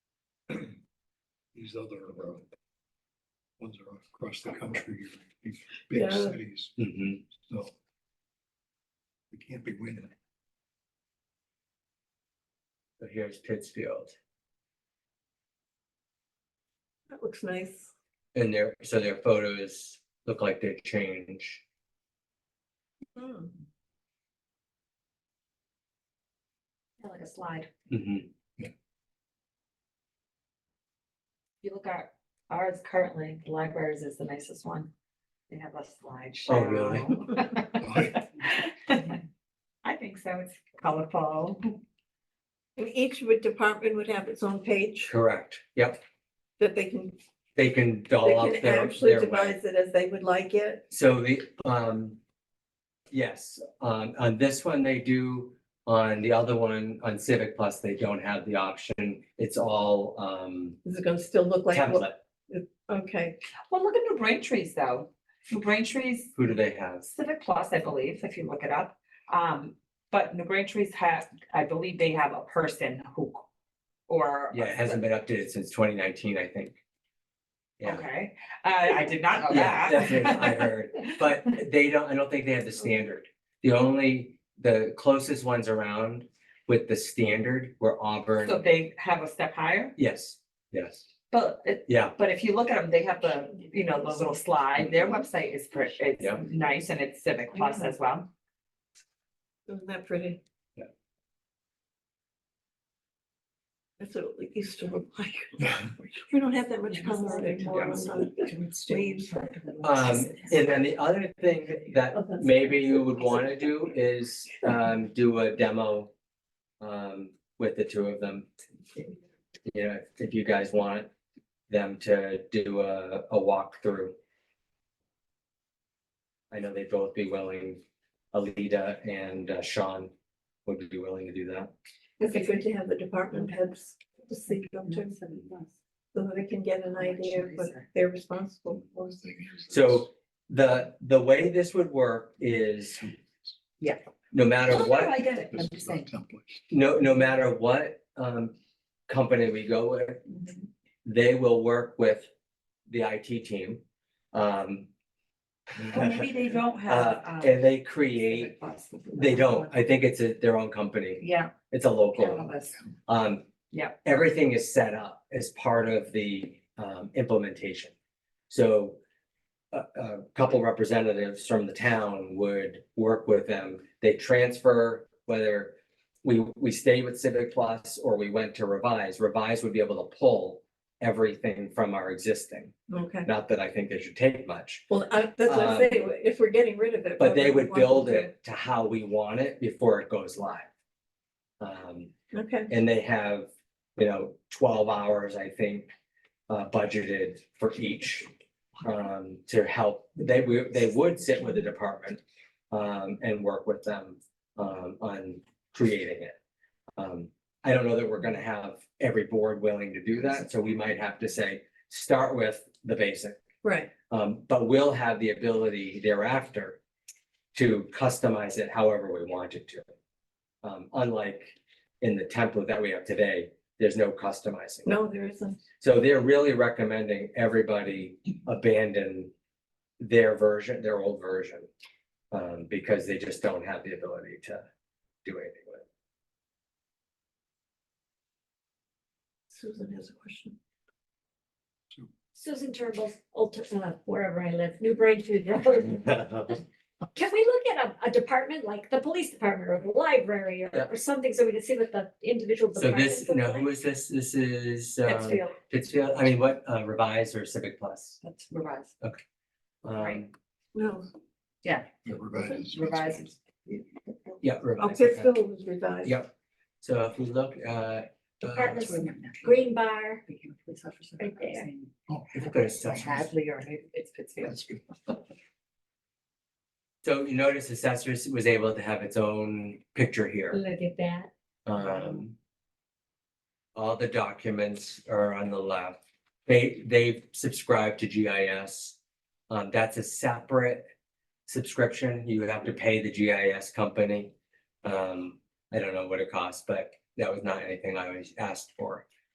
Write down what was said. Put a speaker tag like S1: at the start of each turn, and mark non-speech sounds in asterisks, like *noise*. S1: these other uh, ones are across the country, these big
S2: Yeah.
S1: cities,
S3: Mhm.
S1: so. We can't be winning.
S3: So here's Pittsfield.
S2: That looks nice.
S3: And their, so their photos look like they change.
S2: Hmm.
S4: Yeah, Like a slide.
S3: Mhm.
S4: If you look at ours currently, the libraries is the nicest one. They have a slideshow.
S3: Oh, really? *laughs*
S4: *laughs* I think so. It's colorful.
S2: And each would- department would have its own page
S3: Correct, yep,
S2: that they can,
S3: they can
S2: they
S3: doll up
S2: can
S3: their,
S2: actually
S3: their way.
S2: devise it as they would like it.
S3: So the, um, yes, on, on this one they do, on the other one, on Civic Plus, they don't have the option. It's all, um,
S2: Is it gonna still look like, what-
S3: template.
S2: okay,
S4: Well, look at New Braintree's though. New Braintree's
S3: Who do they have?
S4: Civic Plus, I believe, if you look it up. Um, but New Braintree's have, I believe they have a person who, or.
S3: Yeah, it hasn't been updated since twenty nineteen, I think. Yeah.
S4: Okay, I, I did not know
S3: Yeah,
S4: *laughs* that.
S3: that's what I heard, but they don't, I don't think they have the standard. The only, the closest ones around with the standard were
S4: So
S3: Auburn.
S4: they have a step higher,
S3: Yes, yes,
S4: but it,
S3: yeah,
S4: But if you look at them, they have the, you know, the little slide, their website is pretty, it's
S3: Yeah.
S4: nice and it's Civic Plus as well.
S2: isn't that pretty?
S3: Yeah.
S2: That's what it used to look like. We don't have that much color anymore.
S3: Yeah.
S2: on the leaves.
S3: um, and then the other thing that maybe you would wanna do is, um, do a demo. Um, with the two of them. You know, if you guys want them to do a, a walkthrough. I know they'd both be willing, Alida and uh, Sean would be willing to do that.
S2: It'd be good to have the department heads to see them too, so that they can get an idea of what they're responsible for.
S3: So the, the way this would work is.
S4: Yeah.
S3: No matter what.
S4: I get it.
S1: This is not template.
S3: no, no matter what um company we go with, they will work with the IT team. Um.
S4: Maybe *laughs* they don't have.
S3: uh,
S4: um,
S3: And they create,
S4: Civic Plus.
S3: they don't, I think it's a- their own company,
S4: Yeah.
S3: it's a local,
S4: Catalyst.
S3: um.
S4: Yeah.
S3: Everything is set up as part of the um implementation. So a, a couple representatives from the town would work with them. They transfer whether we, we stay with Civic Plus or we went to Revise. Revise would be able to pull everything from our existing.
S2: Okay,
S3: Not that I think they should take much,
S2: well, I, that's what I
S3: Um,
S2: say, if we're getting rid of it.
S3: but
S2: why
S3: they
S2: we
S3: would
S2: want
S3: build
S2: to-
S3: it to how we want it before it goes live. Um,
S2: Okay,
S3: *laughs* and they have, you know, twelve hours, I think, uh, budgeted for each. Um, to help, they would, they would sit with the department, um, and work with them, um, on creating it. Um, I don't know that we're gonna have every board willing to do that, so we might have to say, start with the basic.
S2: right,
S3: Um, but we'll have the ability thereafter to customize it however we want it to. Um, unlike in the template that we have today, there's no customizing.
S2: no, there isn't.
S3: So they're really recommending everybody abandon their version, their old version. Um, because they just don't have the ability to do anything with it.
S2: Susan has a question.
S5: Susan Turnbull's old, t- uh, wherever I live, New Braintree Road. Can we look at a, a department like the police department or the library or,
S3: Yeah.
S5: or something so we can see what the individual
S3: So this,
S5: departments look
S3: no,
S5: like?
S3: who is this? This is, um,
S5: Pittsfield,
S3: Pittsfield, I mean, what, uh, Revise or Civic Plus?
S4: That's revised. Right.
S3: Um,
S2: No,
S1: Yeah, revised.
S4: Revised.
S3: yeah,
S2: oh,
S3: Revise. okay.
S2: Pittsfield was revised.
S3: Yeah. So if we look, uh, uh,
S5: departments, green bar, Right there.
S1: Oh,
S3: if we go to assessors,
S4: Hadley or maybe it's Pittsfield.
S1: that's good.
S3: so you notice assessors was able to have its own picture here.
S5: look at that.
S3: Um. All the documents are on the left. They, they've subscribed to GIS. Um, that's a separate subscription. You would have to pay the GIS company. Um, I don't know what it costs, but that was not anything I was asked for.